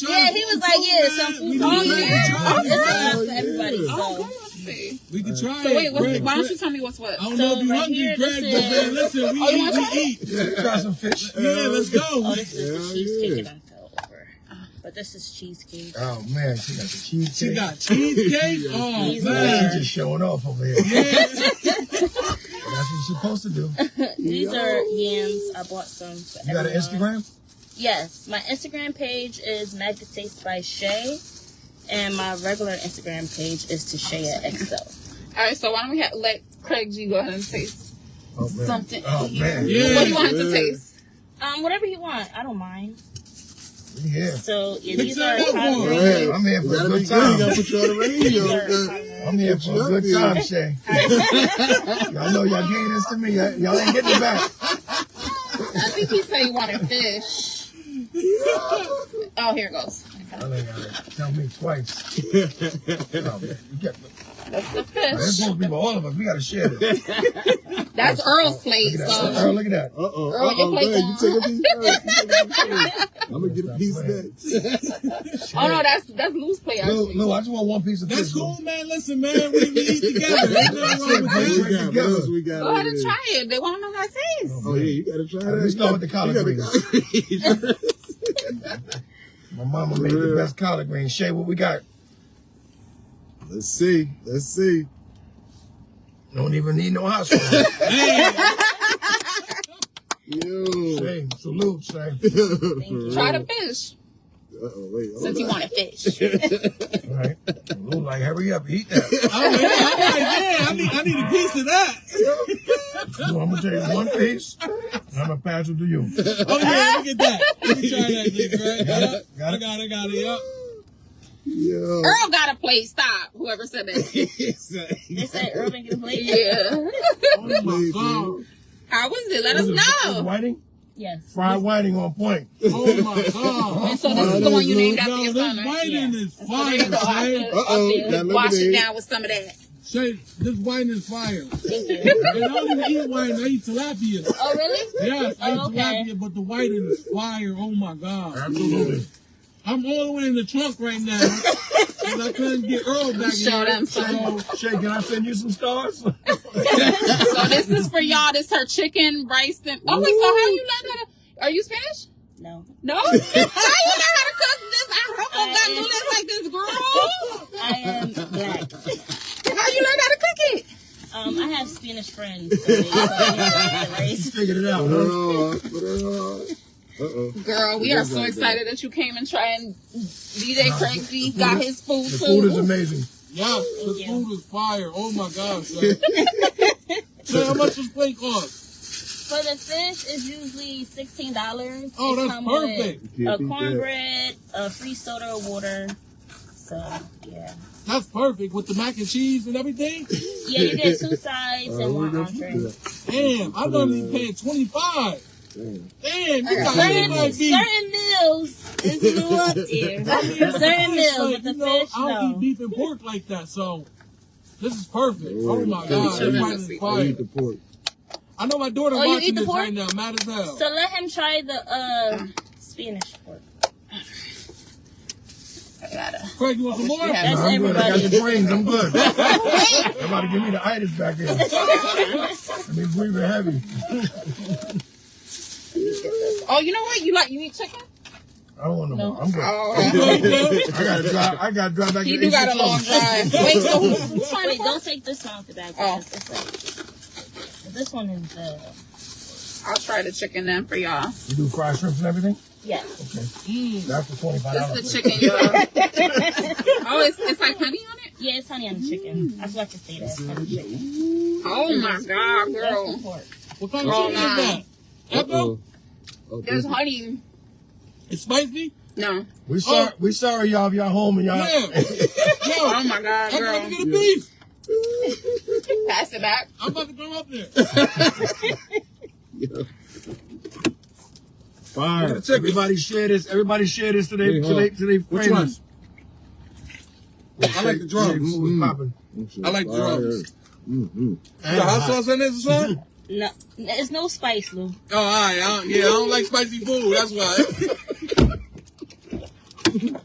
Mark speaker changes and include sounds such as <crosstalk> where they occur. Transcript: Speaker 1: Yeah, he was like, yeah, some food on there. It's enough for everybody.
Speaker 2: Oh,
Speaker 1: So.
Speaker 3: We can try
Speaker 4: So wait,
Speaker 3: it.
Speaker 4: what's,
Speaker 3: Greg,
Speaker 4: why don't
Speaker 3: Greg-
Speaker 4: you tell me what's what?
Speaker 3: I don't
Speaker 1: So
Speaker 3: know if you're
Speaker 1: right
Speaker 3: hungry,
Speaker 1: here,
Speaker 3: Greg,
Speaker 1: this
Speaker 3: but
Speaker 1: is-
Speaker 3: man, listen, we
Speaker 4: Oh, you want
Speaker 3: eat, we eat.
Speaker 2: Try some fish.
Speaker 3: Yeah, let's go.
Speaker 1: Oh, this is
Speaker 2: Yeah,
Speaker 1: the cheesecake
Speaker 2: yeah.
Speaker 1: that I fell over. But this is cheesecake.
Speaker 2: Oh man, she got the cheesecake.
Speaker 3: She got
Speaker 4: <laughs>
Speaker 3: cheesecake. Oh,
Speaker 1: Cheese
Speaker 2: Man,
Speaker 3: man.
Speaker 2: she just showing off over here.
Speaker 3: Yeah.
Speaker 2: That's what you're supposed to do.
Speaker 1: These are yams. I bought some. For
Speaker 2: You got an
Speaker 1: everyone.
Speaker 2: Instagram?
Speaker 1: Yes, my Instagram page is Magda Taste by Shay, and my regular Instagram page is Tashea XL.
Speaker 4: All right, so why don't we ha- let Craig G go ahead and taste
Speaker 2: Oh man.
Speaker 4: something?
Speaker 2: Oh man.
Speaker 3: Yeah.
Speaker 4: What do you want him to
Speaker 3: Yeah.
Speaker 4: taste?
Speaker 1: Um, whatever you want, I don't mind.
Speaker 2: Yeah.
Speaker 1: So yeah,
Speaker 3: Mix
Speaker 1: these
Speaker 3: that
Speaker 1: are
Speaker 3: up
Speaker 1: hot
Speaker 3: for
Speaker 1: green-
Speaker 3: us.
Speaker 2: I'm here for
Speaker 5: Gotta
Speaker 2: a
Speaker 5: be
Speaker 2: good
Speaker 5: good.
Speaker 2: time.
Speaker 5: Gotta put you on the radio.
Speaker 1: these are
Speaker 5: okay?
Speaker 1: hot green.
Speaker 2: I'm here for a good time, Shay. y'all know y'all gave this to me. Y'all, y'all ain't getting it back.
Speaker 4: I think he said he wanted fish. Oh, here it goes.
Speaker 2: Y'all ain't gotta tell me twice. Oh, man. You got-
Speaker 4: That's the
Speaker 2: That's
Speaker 4: fish.
Speaker 2: supposed to be for all of us. We gotta share this.
Speaker 4: That's Earl's plate.
Speaker 2: Look at
Speaker 4: So
Speaker 2: that. Earl, look at that.
Speaker 5: Uh oh.
Speaker 4: Earl,
Speaker 5: Uh
Speaker 4: your
Speaker 5: oh.
Speaker 4: plate
Speaker 5: You take
Speaker 4: <laughs>
Speaker 5: a piece first. You take a piece first. I'm gonna get a
Speaker 2: Stop
Speaker 5: piece
Speaker 2: playing.
Speaker 5: next.
Speaker 4: oh no, that's that's Lou's plate.
Speaker 2: Lou,
Speaker 4: Actually.
Speaker 2: Lou, I just want one piece of
Speaker 3: That's
Speaker 2: fish,
Speaker 3: cool, man. Listen, man, we, we
Speaker 5: <laughs>
Speaker 3: eat together. Ain't nothing wrong with
Speaker 5: What
Speaker 3: that.
Speaker 5: we got? What else we got?
Speaker 4: Go ahead
Speaker 5: over
Speaker 4: and
Speaker 5: there?
Speaker 4: try it. They want to know how it tastes.
Speaker 5: Oh yeah, you gotta try that.
Speaker 2: Let me start with the collard
Speaker 5: greens.
Speaker 2: <laughs> My mama made the best collard greens. Shay, what we got?
Speaker 5: Let's see. Let's see.
Speaker 2: Don't even need no hot <laughs> sauce.
Speaker 5: Yo.
Speaker 2: Shay, salute, Shay.
Speaker 4: Try the fish
Speaker 5: Uh oh. Wait. hold
Speaker 4: since you
Speaker 5: on.
Speaker 4: wanted fish.
Speaker 2: All right. Lou, like, hurry up, eat that.
Speaker 3: I'm like, yeah, I'm like, yeah, I need, I need a piece of that.
Speaker 2: Lou, I'm gonna take one piece. And I'm gonna pass it to you.
Speaker 3: Oh
Speaker 2: <laughs>
Speaker 3: yeah, look at that. Let me try that, G, Greg.
Speaker 2: Got
Speaker 3: Yep.
Speaker 2: it? Got
Speaker 3: I
Speaker 2: it?
Speaker 3: got it, got
Speaker 2: <laughs>
Speaker 3: it. Yep.
Speaker 5: Yo.
Speaker 4: Earl got a plate. Stop. Whoever said that.
Speaker 1: They said urban can play.
Speaker 4: Yeah.
Speaker 3: <laughs> Oh my god.
Speaker 4: How was it? Let us
Speaker 2: Is it
Speaker 4: <laughs> know.
Speaker 2: whiting?
Speaker 1: Yes.
Speaker 2: Fried whiting on point.
Speaker 3: Oh my god.
Speaker 4: And so this is the one you named after
Speaker 3: Yo,
Speaker 4: your
Speaker 3: this
Speaker 4: son, right?
Speaker 3: whiting is fire,
Speaker 4: There you go. I
Speaker 3: Shay.
Speaker 4: feel-
Speaker 5: Uh-oh.
Speaker 4: I feel-
Speaker 5: Now look
Speaker 4: Wash
Speaker 5: at
Speaker 4: it
Speaker 5: it.
Speaker 4: down with some of that.
Speaker 3: Shay, this whiting is
Speaker 4: <laughs>
Speaker 3: fire.
Speaker 1: Thank you.
Speaker 3: And I don't even eat whiting, I eat tilapia.
Speaker 1: Oh really?
Speaker 3: Yes, I eat
Speaker 1: Oh, okay.
Speaker 3: tilapia, but the whiting is fire. Oh my god.
Speaker 2: Absolutely.
Speaker 3: I'm all the way in the trunk right now.
Speaker 4: <laughs>
Speaker 3: 'cause I couldn't get Earl back
Speaker 4: Show
Speaker 3: in.
Speaker 4: them
Speaker 3: So,
Speaker 4: some.
Speaker 2: Shay, can I send you some stars?
Speaker 4: So this is for y'all. This her chicken, rice, and oh wait. So how you learn how to? Are you Spanish?
Speaker 1: No.
Speaker 4: No. <laughs> how you learn how to cook this? I hope I got
Speaker 1: I-
Speaker 4: do this like this, girl.
Speaker 1: I am black.
Speaker 4: How you learn how to cook it?
Speaker 1: Um, I have Spanish friends. So they taught me how to
Speaker 2: <laughs>
Speaker 1: raise-
Speaker 2: Figured it out,
Speaker 5: Put
Speaker 2: huh?
Speaker 5: it on. Put it on. Uh oh.
Speaker 4: Girl, we are so
Speaker 5: Like that.
Speaker 4: excited that you came and tried and DJ Craig G got his food
Speaker 2: The food is
Speaker 4: too.
Speaker 2: amazing.
Speaker 3: yes, the
Speaker 1: you.
Speaker 3: food is fire. Oh my god,
Speaker 4: <laughs>
Speaker 3: Shay. Shay, how much does plate cost?
Speaker 1: For the fish, it's usually sixteen dollars.
Speaker 3: Oh, that's perfect.
Speaker 1: a
Speaker 5: Can't beat that.
Speaker 1: cornbread, a free soda or water. So yeah,
Speaker 3: That's perfect with the mac and cheese and everything.
Speaker 1: yeah, you get two sides and one
Speaker 5: Oh,
Speaker 1: entree.
Speaker 5: yeah.
Speaker 3: Damn, I thought he paid twenty five.
Speaker 5: Damn.
Speaker 3: Damn, you got me
Speaker 1: Certain,
Speaker 3: like beef.
Speaker 1: certain meals is a little <laughs> up there. certain meals,
Speaker 3: Like,
Speaker 1: but the
Speaker 3: you know,
Speaker 1: fish
Speaker 3: I don't eat
Speaker 1: no.
Speaker 3: beef and pork like that, so this is perfect. Oh my god,
Speaker 5: Yeah. Yeah.
Speaker 3: this white is
Speaker 5: I eat
Speaker 3: fire.
Speaker 5: the pork.
Speaker 3: I know my daughter
Speaker 1: Oh, you eat
Speaker 3: watching
Speaker 1: the
Speaker 3: this
Speaker 1: pork?
Speaker 3: right now, mad as hell.
Speaker 1: So let him try the uh, Spanish pork.
Speaker 4: I gotta.
Speaker 3: Craig, you want some
Speaker 1: <laughs>
Speaker 3: more?
Speaker 4: Yeah.
Speaker 1: That's
Speaker 2: I'm good. I got
Speaker 1: everybody.
Speaker 2: the brains. I'm good. They're about to give me the itis back here. I mean, we were heavy.
Speaker 4: Oh, you know what? You like you eat chicken?
Speaker 2: I don't want no,
Speaker 1: No.
Speaker 2: more. I'm good.
Speaker 4: Oh,
Speaker 2: I gotta drive. I gotta drive back
Speaker 4: he
Speaker 2: to
Speaker 4: do got a
Speaker 2: 86 <laughs>
Speaker 4: long drive. Wait, so who's, who's trying to
Speaker 1: <laughs> Wait,
Speaker 4: go?
Speaker 1: don't take this one off the back.
Speaker 4: Oh.
Speaker 1: because It's like, this one is uh, the
Speaker 4: I'll try the chicken then for y'all.
Speaker 2: You do fried shrimps and everything?
Speaker 1: yeah.
Speaker 3: Mm.
Speaker 2: That's for twenty five dollars.
Speaker 4: This is the chicken, y'all. <laughs> oh, it's, it's like honey on it.
Speaker 1: Yeah, it's honey on the chicken. I forgot to say that. It's honey chicken.
Speaker 4: Oh my god,
Speaker 1: That's the
Speaker 4: girl.
Speaker 1: pork.
Speaker 3: What kind of
Speaker 4: Oh,
Speaker 3: chicken is that? Echo?
Speaker 5: Uh-oh. Oh,
Speaker 4: There's
Speaker 5: this-
Speaker 4: honey.
Speaker 3: It's
Speaker 1: <laughs>
Speaker 3: spicy?
Speaker 4: No.
Speaker 2: We sorry, we sorry, y'all. If y'all home and y'all,
Speaker 3: Yeah. Yo,
Speaker 2: <laughs>
Speaker 4: Oh my
Speaker 3: I'm about
Speaker 4: god,
Speaker 3: to
Speaker 4: girl.
Speaker 3: get a beef.
Speaker 4: Pass it back.
Speaker 3: I'm about to go up there.
Speaker 5: Yeah.
Speaker 2: Look
Speaker 5: Fire.
Speaker 2: at the chicken. everybody share this. Everybody share this today.
Speaker 5: Yeah, huh?
Speaker 2: Today, today,
Speaker 5: Which one?
Speaker 3: I like the drums.
Speaker 2: Food was popping.
Speaker 3: I like drums.
Speaker 5: Mm-hmm.
Speaker 3: The hot sauce in this or something?
Speaker 1: No, it's no spice, Lou.
Speaker 3: Oh, all right. I don't, yeah, I don't like spicy food. That's why.